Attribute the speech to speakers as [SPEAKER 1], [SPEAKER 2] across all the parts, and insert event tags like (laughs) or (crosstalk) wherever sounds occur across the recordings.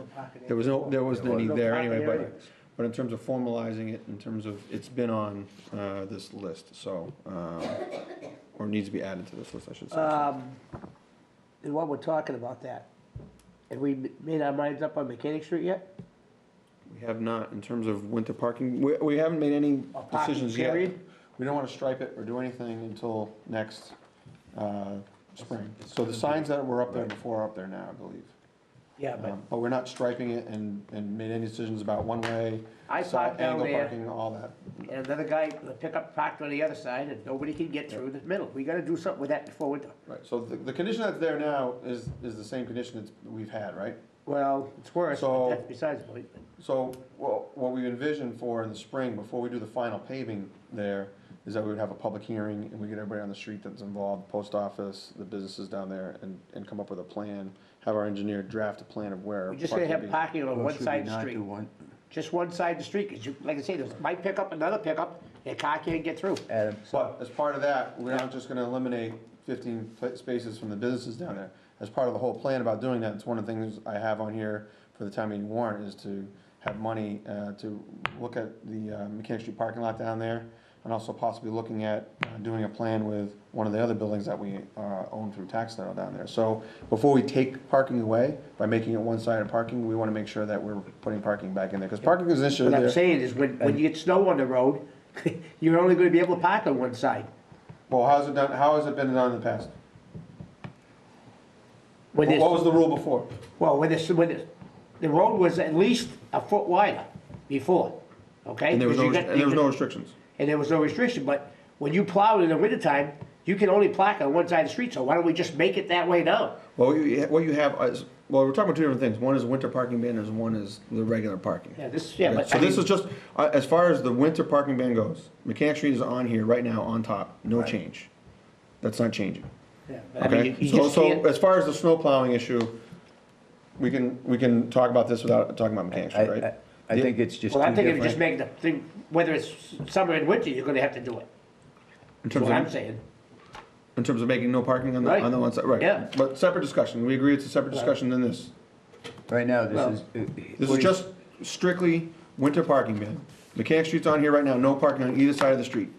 [SPEAKER 1] pocket
[SPEAKER 2] There was no, there wasn't any
[SPEAKER 1] No
[SPEAKER 2] there anyway,
[SPEAKER 1] pocket
[SPEAKER 2] but,
[SPEAKER 1] areas.
[SPEAKER 2] but in terms of formalizing it, in terms of, it's been on, uh, this list, so, um, or needs to be added to this list, I should say. so.
[SPEAKER 1] Um, and while we're talking about that, have we m- made our minds up on Mechanic Street yet?
[SPEAKER 2] We have not, in terms of winter parking, we, we haven't made any
[SPEAKER 1] Or parking
[SPEAKER 2] decisions yet.
[SPEAKER 1] period?
[SPEAKER 2] We don't wanna stripe it or do anything until next, uh, spring. So the signs that were up there before are up there now, I believe.
[SPEAKER 1] Yeah, but
[SPEAKER 2] Um, But we're not striping it and, and made any decisions about one-way,
[SPEAKER 1] I
[SPEAKER 2] side,
[SPEAKER 1] parked down
[SPEAKER 2] angle
[SPEAKER 1] there.
[SPEAKER 2] parking, all that.
[SPEAKER 1] and another guy, the pickup parked on the other side, and nobody can get through the middle. We gotta do something with that before winter.
[SPEAKER 2] Right, so the, the condition that's there now is, is the same condition that's, we've had, right?
[SPEAKER 1] Well, it's worse, but
[SPEAKER 2] So-
[SPEAKER 1] that's besides the point.
[SPEAKER 2] So, well, what we envision for in the spring, before we do the final paving there, is that we would have a public hearing, and we get everybody on the street that's involved, post office, the businesses down there, and, and come up with a plan, have our engineer draft a plan of where.
[SPEAKER 1] We're just gonna have
[SPEAKER 2] parking would
[SPEAKER 1] parking on
[SPEAKER 3] Or
[SPEAKER 1] one
[SPEAKER 3] should we
[SPEAKER 1] side of the
[SPEAKER 3] not
[SPEAKER 1] street.
[SPEAKER 3] do one-
[SPEAKER 1] Just one side of the street, 'cause you, like I say, there's my pickup, another pickup, their car can't get through.
[SPEAKER 3] Adam,
[SPEAKER 2] be. But as part of that, we're not just gonna eliminate fifteen pla- spaces from the businesses down there. As part of the whole plan about doing that, it's one of the things I have on here for the town meeting warrant, is to have money, uh, to look at the uh, Mechanic Street parking lot down there, and also possibly looking at uh, doing a plan with one of the other buildings that we uh, own through tax title down there. So before we take parking away, by making it one-sided parking, we wanna make sure that we're putting parking back in there, because parking is an issue
[SPEAKER 1] What I'm
[SPEAKER 2] there.
[SPEAKER 1] saying is, when, when you get snow on the road, (laughs) you're only gonna be able to park on one side.
[SPEAKER 2] Well, how's it done, how has it been done in the past?
[SPEAKER 1] When
[SPEAKER 2] What
[SPEAKER 1] there's-
[SPEAKER 2] what was the rule before?
[SPEAKER 1] Well, when this, when this, the road was at least a foot wider before, okay?
[SPEAKER 2] And there was
[SPEAKER 1] 'Cause
[SPEAKER 2] no,
[SPEAKER 1] you
[SPEAKER 2] and
[SPEAKER 1] got-
[SPEAKER 2] there was
[SPEAKER 1] you
[SPEAKER 2] no
[SPEAKER 1] got-
[SPEAKER 2] restrictions.
[SPEAKER 1] And there was no restriction, but when you plow in the wintertime, you can only plaque on one side of the street, so why don't we just make it that way now?
[SPEAKER 2] Well, you, what you have is, well, we're talking about two different things. One is winter parking ban, and one is the regular parking.
[SPEAKER 1] Yeah, this, yeah, but.
[SPEAKER 2] So
[SPEAKER 1] I
[SPEAKER 2] this
[SPEAKER 1] mean,
[SPEAKER 2] is just, uh, as far as the winter parking ban goes, Mechanic Street is on here right now, on top, no change. That's not changing,
[SPEAKER 1] yeah, but I mean,
[SPEAKER 2] okay?
[SPEAKER 1] you- you
[SPEAKER 2] So,
[SPEAKER 1] just
[SPEAKER 2] so
[SPEAKER 1] can't-
[SPEAKER 2] as far as the snow plowing issue, we can, we can talk about this without talking about Mechanic
[SPEAKER 3] I,
[SPEAKER 2] Street, right?
[SPEAKER 3] I, I think it's just
[SPEAKER 1] Well,
[SPEAKER 3] too
[SPEAKER 1] I'm thinking of just
[SPEAKER 3] different.
[SPEAKER 1] making the thing, whether it's summer and winter, you're gonna have to do it,
[SPEAKER 2] In
[SPEAKER 1] that's
[SPEAKER 2] terms
[SPEAKER 1] what I'm
[SPEAKER 2] of,
[SPEAKER 1] saying.
[SPEAKER 2] in terms of making no parking on the,
[SPEAKER 1] Right.
[SPEAKER 2] on the one side, right?
[SPEAKER 1] Yeah.
[SPEAKER 2] But separate discussion, we agree it's a separate discussion than this.
[SPEAKER 3] Right now,
[SPEAKER 1] Well,
[SPEAKER 3] this is.
[SPEAKER 2] This is just strictly winter parking ban. Mechanic Street's on here right now, no parking on either side of the street.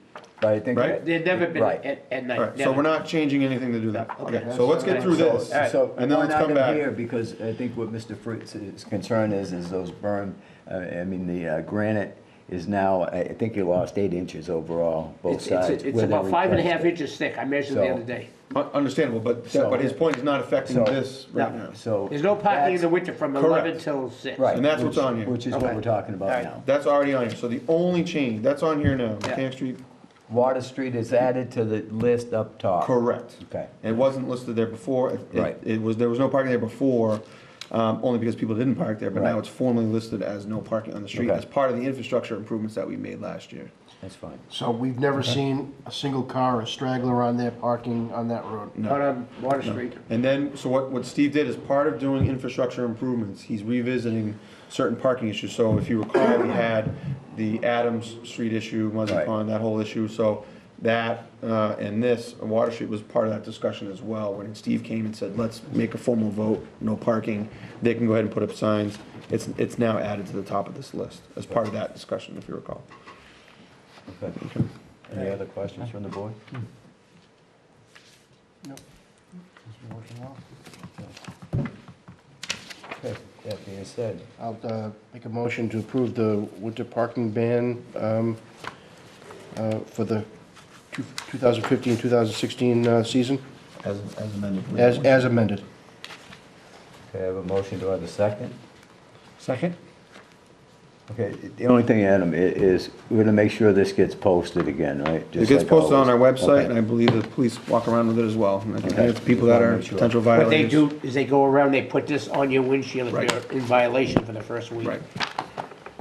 [SPEAKER 3] But I think.
[SPEAKER 2] Right?
[SPEAKER 1] They've never been
[SPEAKER 3] Right.
[SPEAKER 1] at, at
[SPEAKER 2] All
[SPEAKER 1] night,
[SPEAKER 2] right, so we're
[SPEAKER 1] never.
[SPEAKER 2] not changing anything to do that.
[SPEAKER 1] Okay.
[SPEAKER 2] Okay, so let's get through
[SPEAKER 3] So-
[SPEAKER 2] this,
[SPEAKER 3] So,
[SPEAKER 2] and then
[SPEAKER 3] one
[SPEAKER 2] let's come
[SPEAKER 3] item here,
[SPEAKER 2] back.
[SPEAKER 3] because I think what Mr. Fritz's concern is, is those berm, uh, I mean, the uh, granite is now, I I think you lost eight inches overall, both
[SPEAKER 1] It's, it's,
[SPEAKER 3] sides.
[SPEAKER 1] it's
[SPEAKER 3] where they
[SPEAKER 1] about five and a
[SPEAKER 3] replaced
[SPEAKER 1] half
[SPEAKER 3] it.
[SPEAKER 1] inches thick, I measured the
[SPEAKER 3] So-
[SPEAKER 1] other day.
[SPEAKER 2] Un- Understandable, but, that- but his point is not affecting
[SPEAKER 3] So-
[SPEAKER 2] this right
[SPEAKER 1] No.
[SPEAKER 2] now.
[SPEAKER 3] So.
[SPEAKER 1] There's no parking in the
[SPEAKER 3] that's-
[SPEAKER 1] winter from
[SPEAKER 2] Correct.
[SPEAKER 1] eleven till six.
[SPEAKER 3] Right.
[SPEAKER 2] And that's what's
[SPEAKER 3] which-
[SPEAKER 2] on here.
[SPEAKER 3] Which is what
[SPEAKER 1] Okay.
[SPEAKER 3] we're talking about
[SPEAKER 1] Alright.
[SPEAKER 3] now.
[SPEAKER 2] That's already on here, so the only change, that's on here now,
[SPEAKER 1] Yeah.
[SPEAKER 2] Mechanic Street,
[SPEAKER 3] Water Street is added to the list up top.
[SPEAKER 2] correct.
[SPEAKER 3] Okay.
[SPEAKER 2] It wasn't listed there before. It- it-
[SPEAKER 3] Right.
[SPEAKER 2] It was, there was no parking there before, um, only because people didn't park there, but now
[SPEAKER 3] Right.
[SPEAKER 2] it's formally listed as no parking on the street
[SPEAKER 3] Okay.
[SPEAKER 2] as part of the infrastructure improvements that we made last year.
[SPEAKER 3] That's fine.
[SPEAKER 4] So we've never seen a single car or straggler on there parking on that road.
[SPEAKER 1] Out on um, Water Street.
[SPEAKER 2] And then, so what, what Steve did is part of doing infrastructure improvements, he's revisiting certain parking issues. So if you recall, we had the Adams Street issue, Muzzy
[SPEAKER 3] Right.
[SPEAKER 2] Pond, that whole issue. So that, uh, and this, Water Street was part of that discussion as well. When Steve came and said, let's make a formal vote, no parking, they can go ahead and put up signs. It's, it's now added to the top of this list as part of that discussion, if you recall.
[SPEAKER 3] Okay. Any other questions from the board? Okay, That being said,
[SPEAKER 4] I'll uh, make a motion to approve the winter parking ban um, uh, for the 2015, 2016 uh, season,
[SPEAKER 2] As, as amended.
[SPEAKER 4] as as amended.
[SPEAKER 3] okay, I have a motion, do I have a second?
[SPEAKER 2] Second?
[SPEAKER 3] Okay, the only thing, Adam, i- is we're gonna make sure this gets posted again, right?
[SPEAKER 2] It
[SPEAKER 3] Just
[SPEAKER 2] gets
[SPEAKER 3] like
[SPEAKER 2] posted on our
[SPEAKER 3] always.
[SPEAKER 2] website,
[SPEAKER 3] Okay.
[SPEAKER 2] and I believe the police walk around with it as well. And I think
[SPEAKER 3] Okay.
[SPEAKER 2] if people that are
[SPEAKER 3] Make sure.
[SPEAKER 2] potential
[SPEAKER 1] What they
[SPEAKER 2] violators.
[SPEAKER 1] do is they go around, they put this on your windshield
[SPEAKER 2] Right.
[SPEAKER 1] if you're in violation for the first week.
[SPEAKER 2] Right.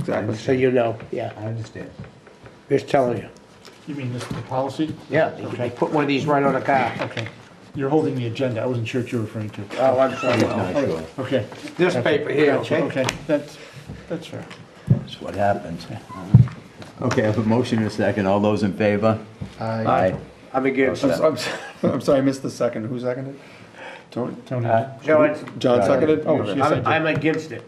[SPEAKER 2] Exactly.
[SPEAKER 1] So you know, yeah,
[SPEAKER 3] I understand.
[SPEAKER 1] just telling you.
[SPEAKER 5] You mean this, the policy?
[SPEAKER 1] Yeah, they they put one of these right on a car.
[SPEAKER 5] Okay. You're holding the agenda. I wasn't sure what you were referring to.
[SPEAKER 1] Oh, I'm sorry.
[SPEAKER 3] Not sure,
[SPEAKER 2] oh.
[SPEAKER 5] Okay.
[SPEAKER 1] This paper here, okay?
[SPEAKER 5] Okay, that's, that's fair.
[SPEAKER 3] that's what happens. Okay, I have a motion and a second, all those in favor? Aye.
[SPEAKER 1] I'm against
[SPEAKER 2] I'm
[SPEAKER 1] it.
[SPEAKER 2] s- I'm (laughs) s- I'm sorry, I missed the second. Who seconded? Tony?
[SPEAKER 5] Tony.
[SPEAKER 3] Aye.
[SPEAKER 1] John,
[SPEAKER 2] John seconded? Oh, she
[SPEAKER 1] I'm,
[SPEAKER 2] seconded.
[SPEAKER 1] I'm against it.